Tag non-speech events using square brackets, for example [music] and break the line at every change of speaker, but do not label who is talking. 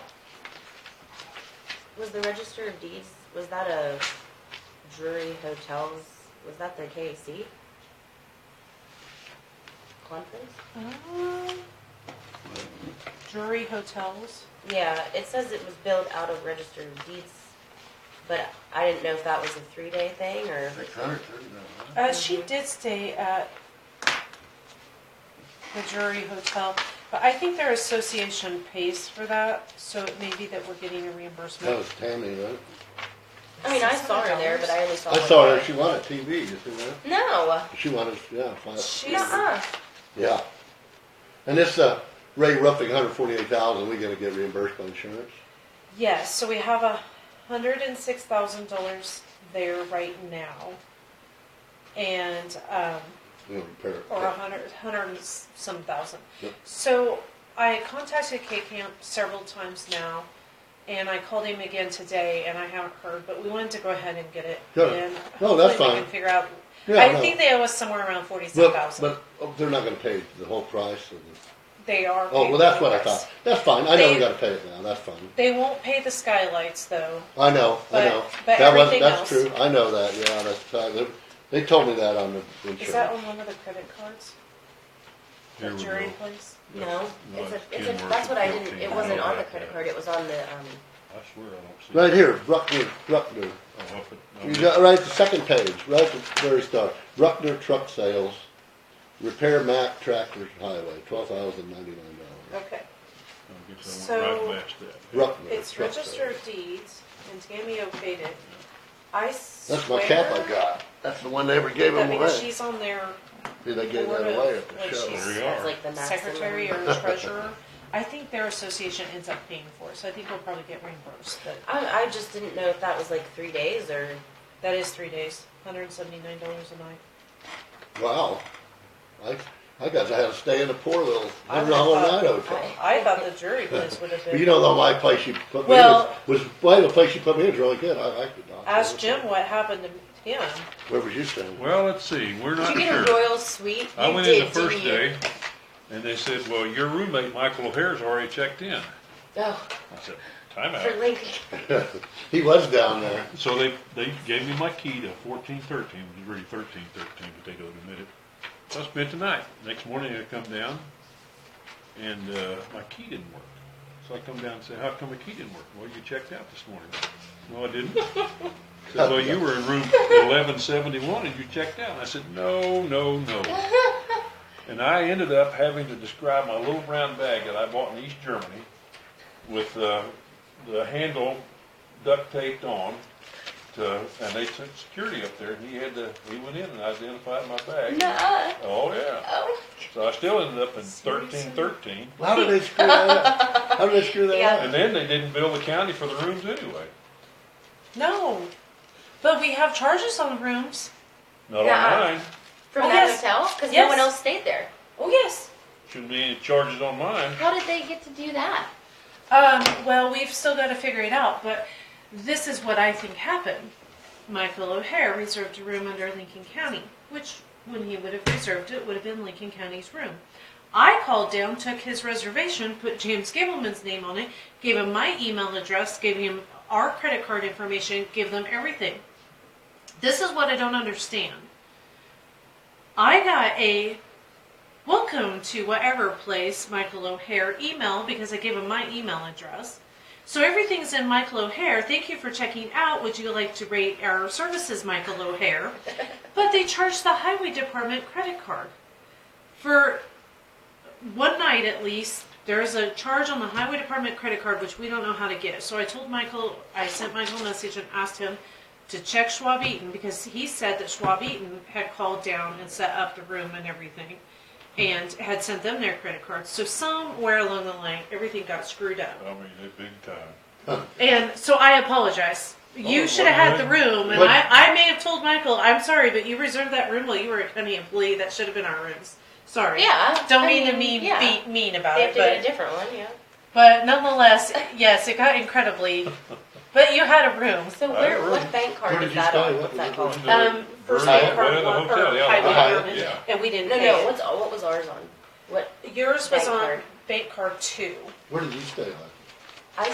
Was the register of deeds, was that a Drury Hotels, was that the KAC? Conference?
Drury Hotels.
Yeah, it says it was billed out of register of deeds, but I didn't know if that was a three-day thing or,
Six hundred thirty thousand.
Uh, she did stay at the Drury Hotel, but I think their association pays for that, so it may be that we're getting a
That
reimbursement.
was Tammy, right?
I mean, I saw her there, but I only saw
I
one.
saw her,
guy.
she won a TV, you see that?
No,
She won a, yeah, five,
She's,
nuh-uh.
yeah. And this, uh, Ray Ruffing, hundred forty-eight thousand, we gonna get reimbursed by insurance?
yes, so we have a hundred and six thousand dollars there right now. And, um,
We don't repair it.
or a hundred, hundred and s- some thousand.
Yep.
So I contacted K Camp several times now, and I called him again today, and I haven't heard, but we wanted to go ahead and get it
Good.
in.
No,
Hopefully
that's
we can
fine.
Figure out,
Yeah,
I
no.
think they owe us somewhere around forty-seven
But,
thousand.
but oh, they're not gonna pay the whole price of the,
They are.
oh,
paying
well, that's
for
what I
us.
thought. That's fine, I know we
They-
gotta pay it now, that's fine.
They won't pay the skylights, though.
I know, I
But-
know.
but
That was,
everything
that's
else-
true, I know that, yeah, that's, uh, they, they told me that on the
Is that
insurance.
on one of the credit cards? The
Here we
jury
go.
place?
No, it's a,
Like
it's
ten
a,
worth
that's
of
what I didn't,
fifteen,
it wasn't
I
on the
like
credit
that.
card, it was on the, um,
I swear I don't see.
Right here, Bruckner, Bruckner.
Oh, up at-
You got right at the second page, right at the very start. Bruckner Truck Sales, Repair Mack Tractor Highway, twelve thousand ninety-nine dollars.
Okay.
I guess I went right past that.
Bruckner.
It's
Truck
register
Sales.
of deeds, and Tammy okayed it. I swear.
That's my cap I got. That's the one they ever gave
That
him
means
away.
she's on their
See, they gave that
board of-
away at the
like,
show.
she's-
There you
that's
are.
like the maximum.
secretary or treasurer. I think their association ends up paying for it, so I think we'll probably get reimbursed, but
I, I just didn't know if that was like three days or,
that is three days, hundred and seventy-nine dollars a night.
Wow. I, I guess I had to stay in a poor little,
I
I don't know how long
thought-
that hotel.
I thought the jury place would have
But You
been,
don't know my place you put me in,
Well-
was, well, the place you put me in was really good. I liked it. Doc.
ask Jim what happened to him.
Where was you staying?
Well, let's see, we're
did
not
you get a
sure.
royal suite?
I
You
went in
did,
the first
didn't you?
day and they said, well, your roommate, Michael O'Hare's already checked in.
Oh,
I said, time
for
out.
Lincoln.
He was down there.
So they, they gave me my key to fourteen thirteen, it was really thirteen thirteen, but they don't admit it. So I spent the night. Next morning I come down and, uh, my key didn't work. So I come down and say, how come my key didn't work? Well, you checked out this morning. No, I didn't. Said, well, you were in room eleven seventy-one and you checked out. I said, no, no, no. And I ended up having to describe my little brown bag that I bought in East Germany with, uh, the handle duct taped on to, uh, and they took security up there and he had to, he went in and identified my bag.
Nuh-uh.
Oh, yeah.
Oh.
So I still ended up in thirteen thirteen.
How did they screw that up? [laughs] How did they screw that
Yeah.
up?
And then they didn't bill the county for the rooms anyway.
No, but we have charges on the rooms.
Not
Yeah.
on mine.
From
Oh,
that
yes.
hotel? Because no
Yes.
one else stayed there.
Oh, yes.
Shouldn't be any charges on mine.
How did they get to do that?
Um, well, we've still got to figure it out, but this is what I think happened. Michael O'Hare reserved a room under Lincoln County, which, when he would have reserved it, would have been Lincoln County's room. I called down, took his reservation, put James Gableman's name on it, gave him my email address, gave him our credit card information, gave them everything. This is what I don't understand. I got a welcome to whatever place Michael O'Hare email because I gave him my email address. So everything's in Michael O'Hare. Thank you for checking out. Would you like to rate our services, Michael O'Hare? But they charged the highway department credit card for one night at least. There's a charge on the highway department credit card which we don't know how to get. So I told Michael, I sent Michael a message and asked him to check Schwab Eaton because he said that Schwab Eaton had called down and set up the room and everything and had sent them their credit cards. So somewhere along the line, everything got screwed up.
I mean, they big time.
And so I apologize. You
Oh,
should have had
well,
the room, and
but-
I, I may have told Michael, I'm sorry, but you reserved that room while you were a county employee. That should have been our rooms. Sorry.
Yeah,
Don't
I
mean, to
mean,
mean,
yeah.
be mean about
They
it,
have to
but
get a different one, yeah.
but nonetheless, yes, it got incredibly. But you had a room.
So
I
where,
don't
what
know.
bank
Where
card is
did you
that
stay?
on?
What
What's
was
that
it
called?
on?
Um, first
Burn-
day of
Burn-
Park
the
Walk, or
hotel, yeah, the
Highway
Ohio,
Room,
yeah.
and we didn't.
No,
pay
no,
it.
what's, what was ours on? What,
yours was
Bank
on
card.
bank card two.
Where did you stay last